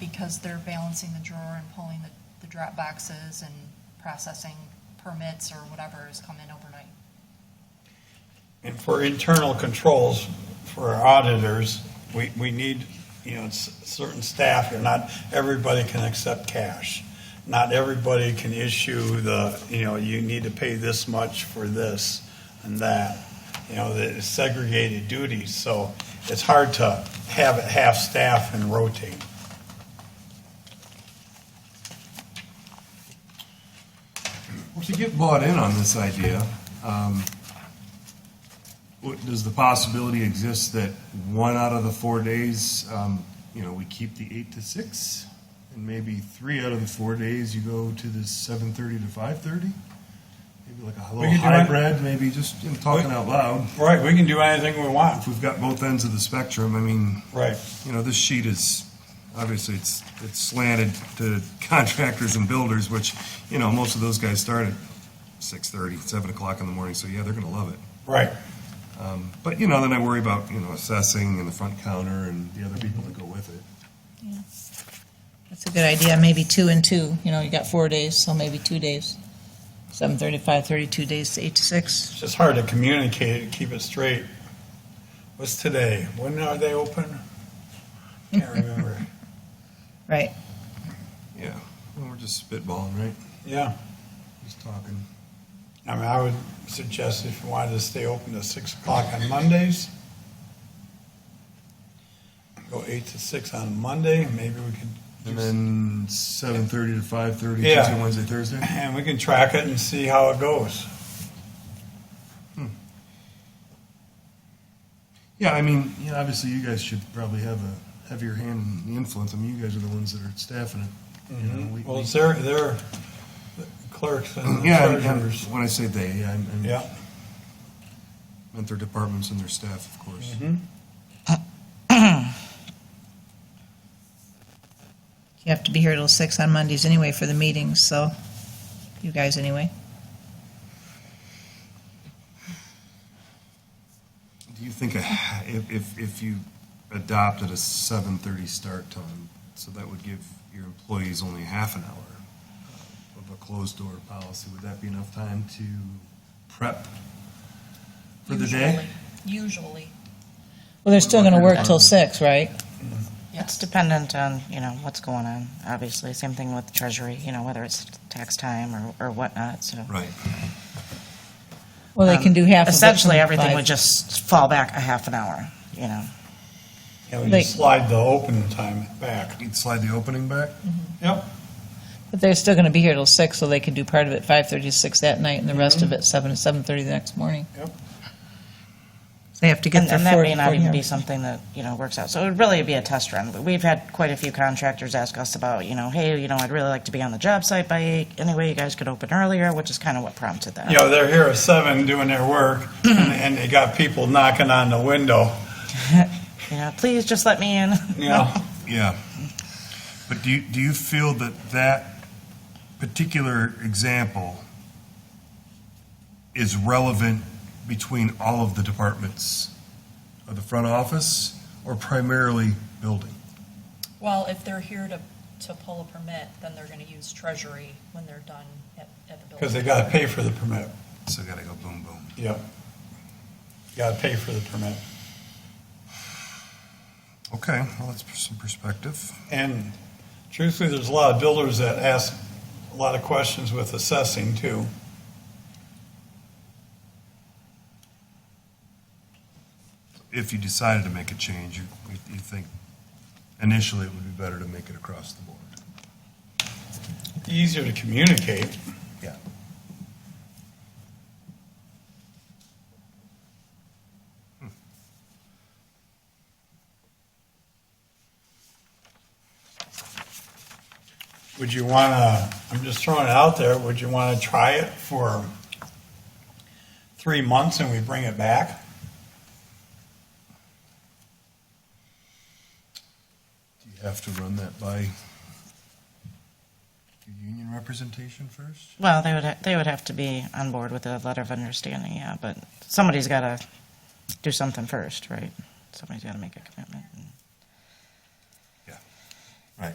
because they're balancing the drawer and pulling the, the drop boxes and processing permits or whatever has come in overnight. And for internal controls, for our auditors, we, we need, you know, s- certain staff, here. not everybody can accept cash. Not everybody can issue the, you know, you need to pay this much for this and that. You know, the segregated duties, so it's hard to have it half-staff and rotate. Well, to get bought in on this idea, um, what- does the possibility exist that one out of the four days, um, you know, we keep the eight to six? And maybe three out of the four days you go to the seven thirty to five thirty? Maybe like a We little could do it. hybrid, maybe just, you know, talking out loud. Right, we can do anything we want. If we've got both ends of the spectrum, I mean, Right. you know, this sheet is, obviously, it's, it's slanted to contractors and builders, which, you know, most of those guys start at six thirty, seven o'clock in the morning, so yeah, they're gonna love it. Right. But, you know, then I worry about, you know, assessing and the front counter and the other people that go with it. That's a good idea, maybe two and two, you know, you got four days, so maybe two days. Seven thirty, five thirty, two days, eight to six. It's just hard to communicate it, keep it straight. What's today? When are they open? Can't remember. Right, Yeah, well, we're just spitballing, right? Yeah, Just talking. I mean, I would suggest if you wanted to stay open to six o'clock on Mondays, go eight to six on Monday, maybe we And could, then seven thirty to five thirty, Yeah. Tuesday, Wednesday, Thursday? and we can track it and see how it goes. Yeah, I mean, you know, obviously you guys should probably have a heavier hand in the influence. I mean, you guys are the ones that are staffing it. You know, we- Mm-hmm. Well, we- it's their, their clerks and Yeah, and- and treasurers. when I say they, yeah, I mean- Yeah, meant their departments and their staff, of course. you have to be here till six on Mondays anyway for the meetings, so, you guys anyway. Do you think a- if, if, if you adopted a seven thirty start time, so that would give your employees only half an hour uh, of a closed door policy, would that be enough time to prep for the day? Usually, Well, they're still gonna work till six, right? It's dependent on, you know, what's going on, obviously. Same thing with Treasury, you know, whether it's tax time or, or whatnot, so. Right. Well, they can do half of it. from Essentially, everything five. would just fall back a half an hour, you know. and we They- just slide the open time back. You'd slide the opening back? Yep, But they're still gonna be here till six, so they can do part of it five thirty to six that night, and the rest Mm-hmm. of it seven to seven thirty the next morning. yep. They have to get And their and that four, may not even be forty. something that, you know, works out. So it would really be a test run. But We've had quite a few contractors ask us about, you know, hey, you know, I'd really like to be on the job site by eight. Anyway, you guys could open earlier, which is kind of what prompted that. you know, they're here at seven doing their work, and, and they got people knocking on the window, You know, please just let me in. you know? Yeah. But do you, do you feel that that particular example is relevant between all of the departments of the front office or primarily building? Well, if they're here to, to pull a permit, then they're gonna use treasury when they're done at, at the building. Because they gotta pay for the permit, So gotta go boom, boom. yep. Gotta pay for the permit. Okay, well, that's some perspective. And truthfully, there's a lot of builders that ask a lot of questions with assessing too. If you decided to make a change, you, you think initially it would be better to make it across the board? Easier to communicate. Yeah. Would you wanna, I'm just throwing it out there, would you wanna try it for three months and we bring it back? Do you have to run that by your union representation first? Well, they would, ha- they would have to be on board with a letter of understanding, yeah, but somebody's got to do something first, right? Somebody's got to make a commitment. Yeah, right.